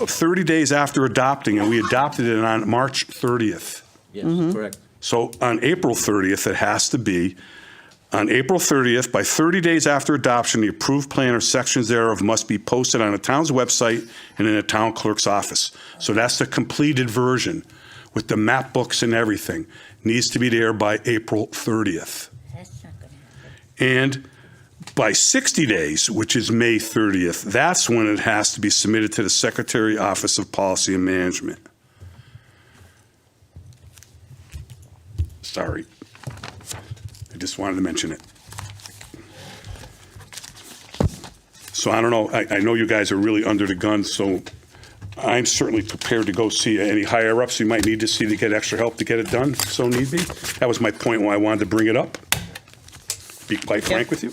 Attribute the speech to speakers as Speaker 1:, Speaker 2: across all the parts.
Speaker 1: 30 days after adopting, and we adopted it on March 30th.
Speaker 2: Yes, correct.
Speaker 1: So on April 30th, it has to be, on April 30th, by 30 days after adoption, the approved plan or sections thereof must be posted on the town's website and in the town clerk's office. So that's the completed version with the map books and everything. Needs to be there by April 30th.
Speaker 3: That's not gonna happen.
Speaker 1: And by 60 days, which is May 30th, that's when it has to be submitted to the Secretary Office of Policy and Management. Sorry. I just wanted to mention it. So I don't know, I, I know you guys are really under the gun, so I'm certainly prepared to go see any higher-ups you might need to see to get extra help to get it done, if so need be. That was my point why I wanted to bring it up, be quite frank with you.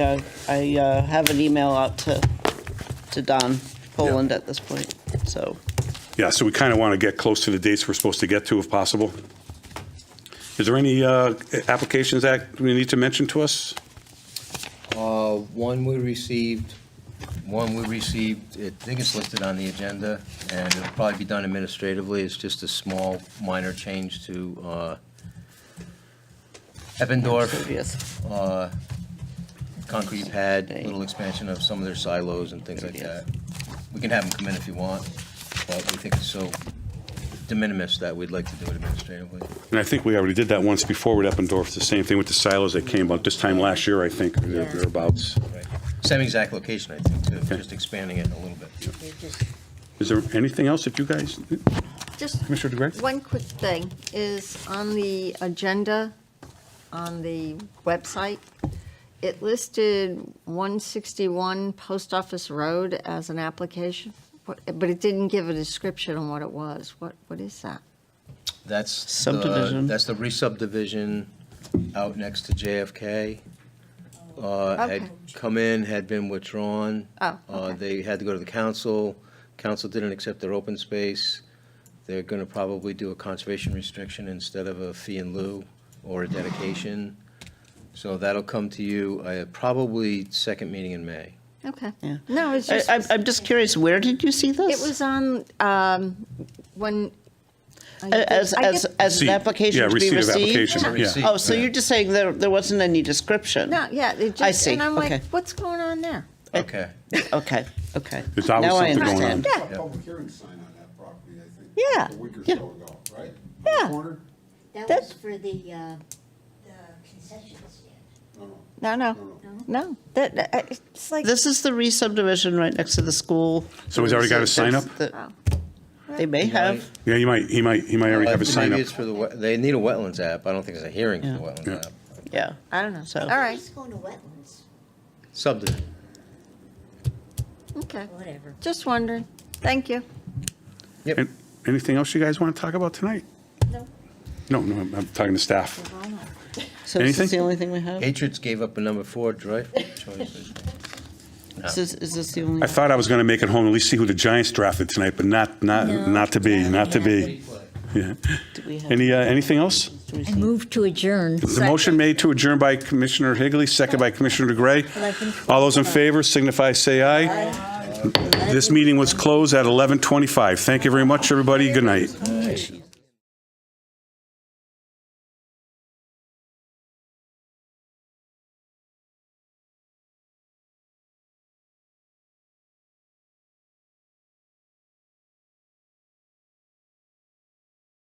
Speaker 4: Yeah, I uh, have an email out to, to Don Poland at this point, so.
Speaker 1: Yeah, so we kind of want to get close to the dates we're supposed to get to if possible. Is there any uh, applications that we need to mention to us?
Speaker 2: Uh, One we received, one we received, I think it's listed on the agenda, and it'll probably be done administratively. It's just a small, minor change to uh, Eppendorf,
Speaker 4: Yes.
Speaker 2: uh, concrete pad, little
Speaker 4: Eight.
Speaker 2: expansion of some of their silos and things like that.
Speaker 4: Yes.
Speaker 2: We can have them come in if you want, but we think it's so de minimis that we'd like to do it administratively.
Speaker 1: And I think we already did that once before with Eppendorf, It's the same thing with the silos that came out this time last year, I think, or there- thereabouts.
Speaker 2: Right. Same exact location, I think, too, just expanding it a little bit.
Speaker 3: You're just-
Speaker 1: Is there anything else that you guys,
Speaker 3: Just
Speaker 1: Commissioner DeGray?
Speaker 3: one quick thing is on the agenda, on the website, it listed 161 Post Office Road as an application, but but it didn't give a description on what it was. What, what is that?
Speaker 2: That's. the-
Speaker 4: Subdivision.
Speaker 2: That's the re-subdivision out next to JFK. Uh,
Speaker 3: Okay.
Speaker 2: Had come in, had been withdrawn.
Speaker 3: Oh,
Speaker 2: Uh,
Speaker 3: okay.
Speaker 2: They had to go to the council. Council didn't accept their open space. They're going to probably do a conservation restriction instead of a fee in lieu or a dedication. So that'll come to you, uh, probably second meeting in May.
Speaker 3: Okay.
Speaker 4: Yeah.
Speaker 3: No, it's
Speaker 4: I,
Speaker 3: just,
Speaker 4: I'm-
Speaker 3: it
Speaker 4: I'm just curious, where did you see this?
Speaker 3: was on, um, when. I get-
Speaker 4: As,
Speaker 3: I
Speaker 4: as,
Speaker 3: get-
Speaker 4: as an
Speaker 1: Receipt.
Speaker 4: application
Speaker 1: Yeah,
Speaker 4: to be received?
Speaker 1: receipt of application,
Speaker 2: Yeah. yeah.
Speaker 4: Oh, so you're just saying there, there wasn't any description?
Speaker 3: No, yeah, it just.
Speaker 4: I see,
Speaker 3: And I'm
Speaker 4: okay.
Speaker 3: like, what's going on there?
Speaker 2: Okay.
Speaker 4: Okay, okay.
Speaker 1: There's always
Speaker 4: Now I
Speaker 1: something going on.
Speaker 4: understand.
Speaker 3: Yeah.
Speaker 5: A public hearing sign on that property, I think.
Speaker 3: Yeah.
Speaker 5: A week or
Speaker 4: Yeah.
Speaker 5: so ago, right?
Speaker 3: Yeah.
Speaker 5: Corner?
Speaker 6: That
Speaker 3: That-
Speaker 6: was for the, uh, the concession stand.
Speaker 5: No, no.
Speaker 3: No, no, no. That, that- I- it's like.
Speaker 4: This is the re-subdivision right next to the school.
Speaker 1: So he's already got a sign up?
Speaker 4: The-
Speaker 3: Oh.
Speaker 4: They may have,
Speaker 1: yeah, you might, he might, he might already have a
Speaker 2: Uh,
Speaker 1: sign
Speaker 2: Maybe
Speaker 1: up.
Speaker 2: it's for the, we- they need a wetlands app. I don't think it's a hearing for the
Speaker 4: Yeah.
Speaker 2: wetlands
Speaker 1: Yeah.
Speaker 2: app.
Speaker 4: yeah.
Speaker 3: I don't know.
Speaker 4: So-
Speaker 3: All right,
Speaker 6: It's going to wetlands,
Speaker 2: Subdivision.
Speaker 3: okay.
Speaker 6: whatever.
Speaker 3: Just wondering. Thank you.
Speaker 1: And Anything else you guys want to talk about tonight?
Speaker 6: No.
Speaker 1: No, no, I'm I'm talking to staff.
Speaker 4: So is
Speaker 1: Anything?
Speaker 4: this the only thing we have?
Speaker 2: Patriots gave up a number four dri- choice.
Speaker 4: Is this, is this the only?
Speaker 1: I thought I was going to make it home, at least see who the Giants drafted tonight, but not, not, not to be, not to be. Yeah.
Speaker 4: do we have-
Speaker 1: Any, uh, anything else?
Speaker 4: do we
Speaker 6: I
Speaker 4: see-
Speaker 6: move to adjourn.
Speaker 1: The motion made to adjourn by Commissioner Higley, second by Commissioner DeGray. All those in favor signify, say aye. This meeting was closed at 11:25. Thank you very much, everybody. Good night.